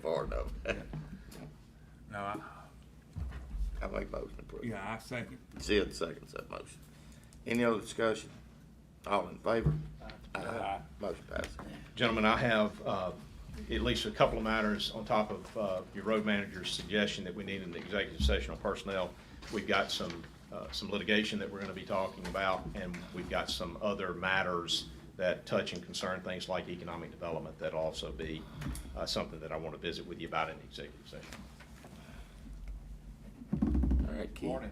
I make motion approved. Yeah, I second. Sid seconds that motion. Any other discussion? All in favor? Aye. Motion passes. Gentlemen, I have uh, at least a couple of matters on top of uh, your road manager's suggestion that we need an executive session on personnel. We've got some, uh, some litigation that we're going to be talking about, and we've got some other matters that touch and concern things like economic development that'll also be uh, something that I want to visit with you about in the executive session. All right, Keith. Morning.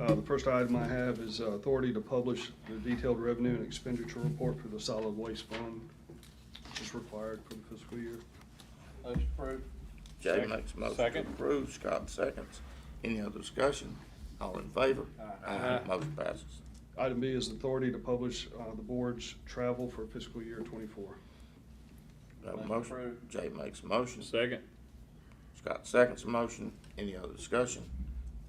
Uh, The first item I have is uh, authority to publish the detailed revenue and expenditure report for the solid waste fund, which is required for the fiscal year. Motion approved. Jay makes a motion to Second. approve, Scott seconds. Any other discussion? All in favor? Aye. Motion passes. Item B is authority to publish uh, the board's travel for fiscal year '24. Have a Motion motion. approved. Jay makes a motion. Second. Scott seconds the motion. Any other discussion?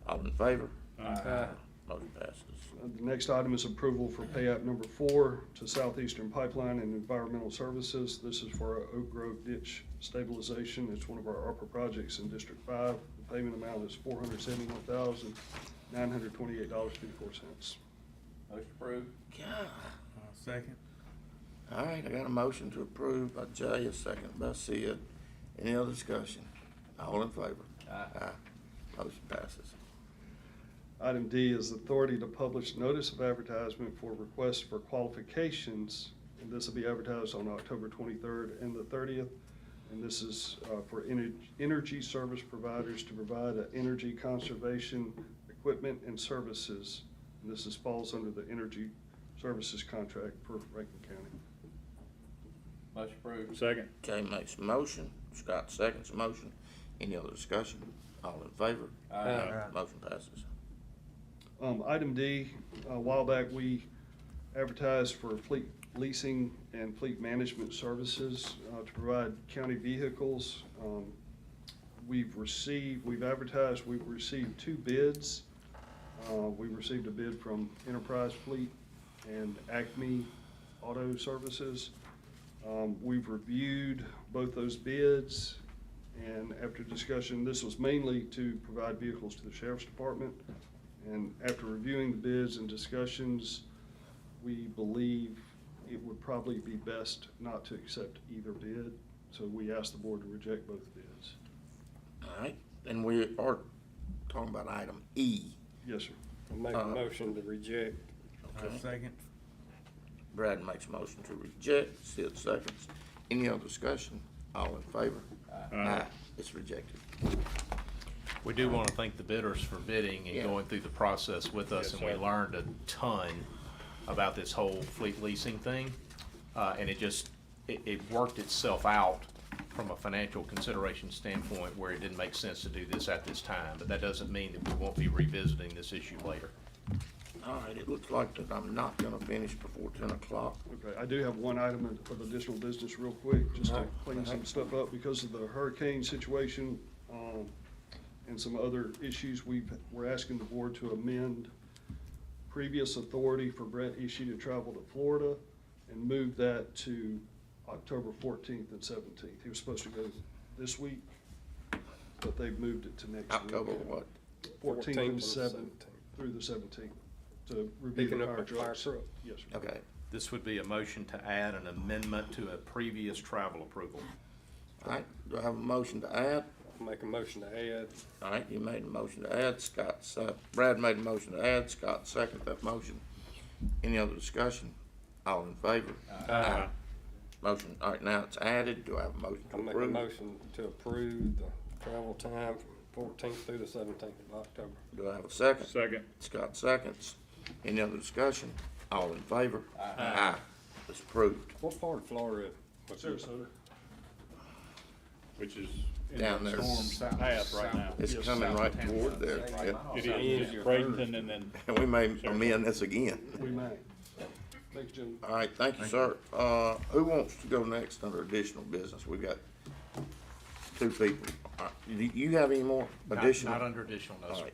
All in favor? Motion passes. Uh, The next item is approval for pay app number four to Southeastern Pipeline and Environmental Services. This is for our Oak Grove ditch stabilization. It's one of our ARPA projects in District Five. The payment amount is four hundred seventy-one thousand, nine hundred twenty-eight dollars, fifty-four cents. Motion approved. God. Second. All right, I got a motion to approve by Jay, a second by Sid. Any other discussion? All in favor? Aye. Motion passes. Item D is authority to publish notice of advertisement for requests for qualifications. And this will be advertised on October twenty-third and the thirtieth. And this is uh, for ener- energy service providers to provide uh, energy conservation equipment and services. And this is, falls under the energy services contract for Rankin County. Motion approved. Second. Jay makes a motion, Scott seconds the motion. Any other discussion? All in favor? Aye. Motion passes. Um, item D, a while back, we advertised for fleet leasing and fleet management services, uh, to provide county vehicles. Um, We've received, we've advertised, we've received two bids. Uh, we received a bid from Enterprise Fleet and Acme Auto Services. Um, we've reviewed both those bids, and after discussion, this was mainly to provide vehicles to the sheriff's department. And after reviewing the bids and discussions, we believe it would probably be best not to accept either bid. So we asked the board to reject both bids. All right, and we are talking about item E. Yes, sir. I'll make Uh, a motion to reject. I second. Brad makes a motion to reject, Sid seconds. Any other discussion? All in favor? Aye. It's rejected. We do want to thank the bidders for bidding Yeah. and going through the process with us, and we learned a ton about this whole fleet leasing thing. Uh, and it just, it, it worked itself out from a financial consideration standpoint where it didn't make sense to do this at this time. But that doesn't mean that we won't be revisiting this issue later. All right, it looks like that I'm not gonna finish before ten o'clock. Okay, I do have one item of- of additional business real quick, just to Alright. clean some stuff up because of the hurricane situation, um, and some other issues, we, we're asking the board to amend previous authority for Brett Ishii to travel to Florida and move that to October fourteenth and seventeenth. He was supposed to go this week, but they've moved it to next week. October what? Fourteenth 14th and and seventh, 17th. through the seventeenth, to review Picking the up fire a fire trucks. truck. Yes, sir. Okay, This would be a motion to add an amendment to a previous travel approval. all right, do I have a motion to add? I'll make a motion to add. All right, you made a motion to add, Scott, se- Brad made a motion to add, Scott seconded that motion. Any other discussion? All in favor? Aye. Motion, all right, now it's added, do I have a motion to I'll make a approve? motion to approve the travel time from fourteenth through the seventeenth of October. Do I have a second? Second. Scott seconds. Any other discussion? All in favor? Aye. It's approved. What part of Florida? was it? Sarasota. Which is. in Down the there. Storm path right now. It's Yes, coming right toward there. yeah. It It is is your Bradenton and then And we may amend this again. We may. Thanks, Jim. All right, thank you, sir. Uh, who wants to go next under additional business? We've got two people. Uh, Do you have any more Not- additional? Not under additional, no, All sir. right.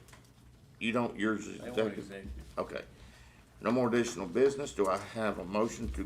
You don't, yours They is want executive? executive. Okay. No more additional business. Do I have a motion to